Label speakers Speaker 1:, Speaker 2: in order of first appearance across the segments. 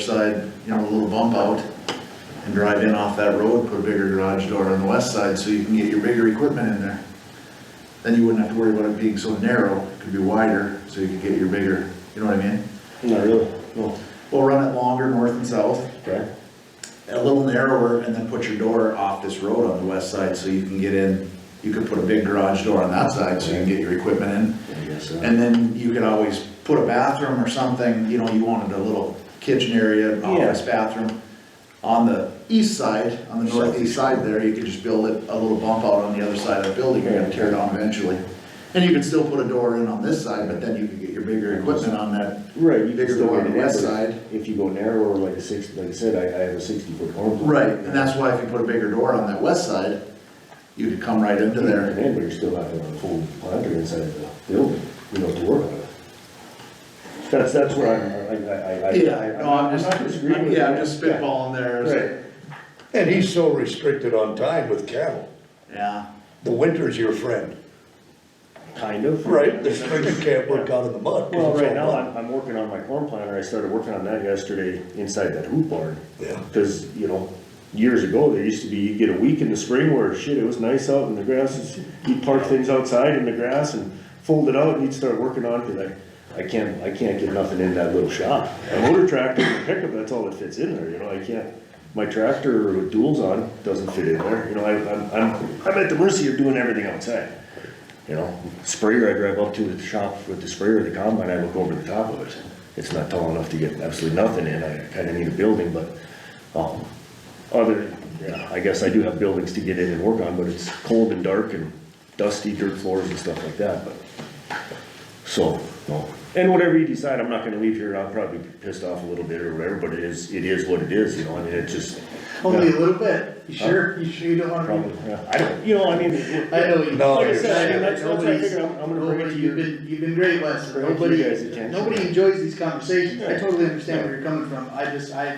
Speaker 1: side, you know, a little bump out and drive in off that road, put a bigger garage door on the west side so you can get your bigger equipment in there. Then you wouldn't have to worry about it being so narrow, it could be wider, so you could get your bigger, you know what I mean?
Speaker 2: Not really, no.
Speaker 1: We'll run it longer north and south,
Speaker 2: Okay.
Speaker 1: a little narrower, and then put your door off this road on the west side so you can get in. You could put a big garage door on that side so you can get your equipment in.
Speaker 2: I guess so.
Speaker 1: And then you could always put a bathroom or something, you know, you wanted a little kitchen area, an office bathroom. On the east side, on the northeast side there, you could just build it a little bump out on the other side of the building, you're gonna tear it down eventually. And you could still put a door in on this side, but then you could get your bigger equipment on that.
Speaker 2: Right. you
Speaker 1: Bigger
Speaker 2: can still
Speaker 1: door on
Speaker 2: get
Speaker 1: the west
Speaker 2: narrower.
Speaker 1: side.
Speaker 2: If you go narrower, like a six, like I said, I, I have a sixty foot home.
Speaker 1: Right, and that's why if you put a bigger door on that west side, you could come right into there.
Speaker 2: And but you're still having a full planter inside the building, you know, to work on it. That's, that's where I'm, I, I, I- I.
Speaker 1: Yeah, no, I'm
Speaker 2: not
Speaker 1: just,
Speaker 2: disagreeing with
Speaker 1: yeah,
Speaker 2: you.
Speaker 1: I'm just spitballing there.
Speaker 2: Right.
Speaker 3: And he's so restricted on time with cattle.
Speaker 1: Yeah,
Speaker 3: The winter's your friend.
Speaker 2: Kind of.
Speaker 3: The spring you can't work out in the mud. 'cause
Speaker 2: Well,
Speaker 3: it's
Speaker 2: right
Speaker 3: all
Speaker 2: now,
Speaker 3: mud.
Speaker 2: I'm, I'm working on my corn planter, I started working on that yesterday inside that hoop barn.
Speaker 3: Yeah.
Speaker 2: Cause, you know, years ago, there used to be, you'd get a week in the spring where shit, it was nice out and the grass is, you'd park things outside in the grass and fold it out and you'd start working on, it, cause I, I can't, I can't get nothing in that little shop. A motor tractor and a pickup, that's all that fits in there, you know, I can't, my tractor with duals on doesn't fit in there, you know, I, I'm, I'm, I'm at the mercy of doing everything outside. You know, sprayer, I drive up to the shop with the sprayer, the combine, I look over the top of it. It's not tall enough to get absolutely nothing in, I kinda need a building, but, um, other, yeah, I guess I do have buildings to get in and work on, but it's cold and dark and dusty dirt floors and stuff like that, but. So, no, and whatever you decide, I'm not gonna leave here, I'll probably be pissed off a little bit or whatever, but it is, it is what it is, you know, I mean, it's just.
Speaker 4: Only a little bit, you sure, you sure you don't wanna
Speaker 2: Probably,
Speaker 4: be?
Speaker 2: yeah, I don't, you know, I mean. it-
Speaker 4: I know you.
Speaker 3: No,
Speaker 2: Like I
Speaker 3: you're
Speaker 2: said, I mean, that's,
Speaker 4: Nobody's-
Speaker 2: that's, why I figured I'm, I'm gonna bring it to
Speaker 4: nobody-
Speaker 2: you.
Speaker 4: You've been, you've been great, Les,
Speaker 2: Bring it to you
Speaker 4: nobody,
Speaker 2: guys' attention.
Speaker 4: nobody enjoys these conversations, I
Speaker 2: Yeah.
Speaker 4: totally understand where you're coming from, I just, I,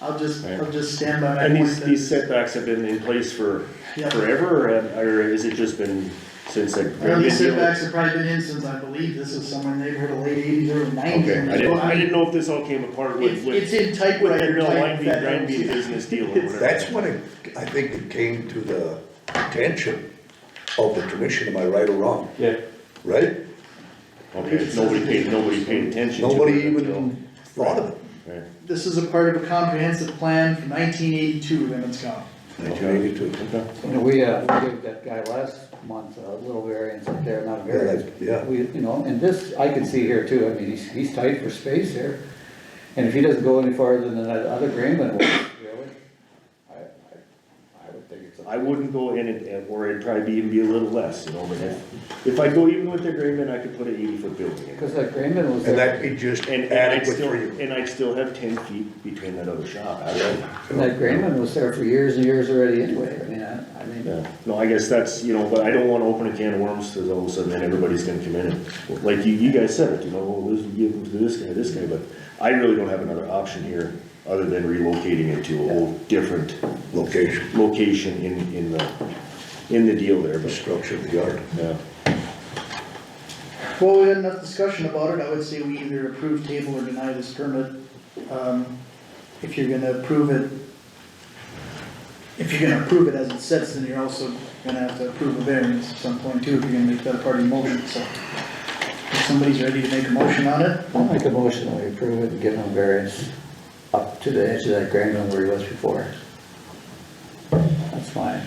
Speaker 4: I'll just,
Speaker 2: Yeah.
Speaker 4: I'll just stand by my.
Speaker 2: And these,
Speaker 4: point that-
Speaker 2: these setbacks have been in place for
Speaker 4: Yeah.
Speaker 2: forever, or, have- or has it just been since like?
Speaker 4: I know these setbacks have probably been in since, I believe, this is somewhere in the neighborhood of late eighties, early nineties.
Speaker 2: Okay, I didn't, I didn't know if this all came apart with,
Speaker 4: It's, it's
Speaker 2: with,
Speaker 4: in
Speaker 2: with the
Speaker 4: typewriter
Speaker 2: real
Speaker 4: type.
Speaker 2: wine bean,
Speaker 4: that-
Speaker 2: grind bean business deal or whatever.
Speaker 3: That's when it, I think it came to the attention of the commission, am I right or wrong?
Speaker 2: Yeah.
Speaker 3: Right?
Speaker 2: Okay, nobody paid, nobody paid attention to it.
Speaker 3: Nobody
Speaker 2: until-
Speaker 3: even thought of it.
Speaker 2: Right.
Speaker 4: This is a part of a comprehensive plan from nineteen eighty-two, Emmett County.
Speaker 3: Nineteen eighty-two.
Speaker 2: Okay.
Speaker 5: You know, we, uh, we gave that guy last month a little variance up there, not a variance.
Speaker 3: Yeah, that's- yeah.
Speaker 5: We, you know, and this, I can see here too, I mean, he's, he's tight for space here. And if he doesn't go any farther than that other Greenland was, really, I, I, I would think it's. a-
Speaker 2: I wouldn't go in it, and- or it'd probably be even be a little less, you know, but if, if I go even with the agreement, I could put an eighty foot building in.
Speaker 5: Cause that Greenland was
Speaker 3: And
Speaker 5: there,
Speaker 3: that'd be just
Speaker 2: And, and I'd
Speaker 3: adequate
Speaker 2: still,
Speaker 3: for you.
Speaker 2: and I'd still have ten feet between that other shop, I don't.
Speaker 5: and that Greenland was there for years and years already anyway, I mean, I, I mean,
Speaker 2: Yeah, no, I guess that's, you know, but I don't wanna open a can of worms, cause all of a sudden then everybody's gonna come in and, like you, you guys said it, you know, well, this, we give them to this guy, this guy, but I really don't have another option here, other than relocating it to a whole different
Speaker 3: Location,
Speaker 2: location in, in the, in the deal there,
Speaker 3: the
Speaker 2: but,
Speaker 3: structure of the yard.
Speaker 2: yeah.
Speaker 4: Well, we had enough discussion about it, I would say we either approve, table, or deny this permit. Um, If you're gonna approve it, if you're gonna approve it as it sits, then you're also gonna have to approve a variance at some point too, if you're gonna make that a part of your motion, so. If somebody's ready to make a motion on it,
Speaker 5: I'll make a motion that we approve it and give him a variance up to the edge of that Greenland where he was before. That's fine.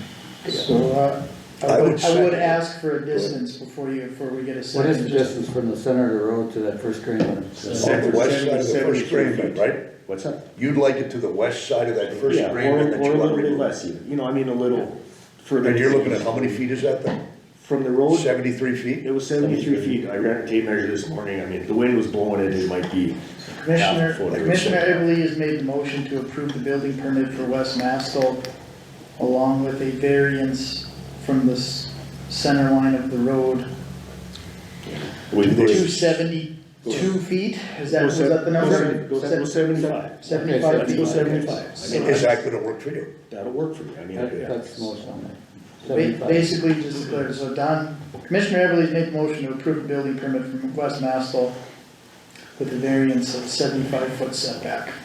Speaker 4: so, uh,
Speaker 3: I
Speaker 4: I
Speaker 3: would
Speaker 4: would, I would
Speaker 3: second.
Speaker 4: ask for a distance before you, before we get a
Speaker 5: What
Speaker 4: second.
Speaker 5: is the distance from the center of the road to that first Greenland?
Speaker 3: On the west side of the first
Speaker 2: 73
Speaker 3: grade,
Speaker 2: feet.
Speaker 3: right?
Speaker 2: What's that?
Speaker 3: You'd like it to the west side of that first
Speaker 2: Yeah, or-
Speaker 3: grade that
Speaker 2: Or
Speaker 3: you
Speaker 2: a
Speaker 3: want
Speaker 2: little bit
Speaker 3: to.
Speaker 2: less even, you know, I mean, a little further.
Speaker 3: And you're looking at how many feet is that then?
Speaker 2: From the road,
Speaker 3: Seventy-three feet?
Speaker 2: it was seventy-three feet, I ran a tape measure this morning, I mean, if the wind was blowing it, it might be half
Speaker 4: Commissioner,
Speaker 2: a foot or
Speaker 4: Commissioner
Speaker 2: something.
Speaker 4: Everly has made the motion to approve the building permit for West Mastel along with a variance from the s- center line of the road,
Speaker 2: With-
Speaker 4: two seventy-two feet, is that, was that the number?
Speaker 2: Go se- go seventy-five.
Speaker 5: Okay,
Speaker 4: Seventy-five
Speaker 2: Let's
Speaker 4: feet.
Speaker 2: go seventy-five. I mean,
Speaker 3: Is
Speaker 2: that's-
Speaker 3: that gonna work for you?
Speaker 2: That'll work for me, I mean,
Speaker 5: That-
Speaker 2: yeah.
Speaker 5: That's the most on there.
Speaker 4: Ba-
Speaker 5: 75.
Speaker 4: Basically, just to clear, so Don, Commissioner Everly's made the motion to approve a building permit from West Mastel with a variance of seventy-five foot setback.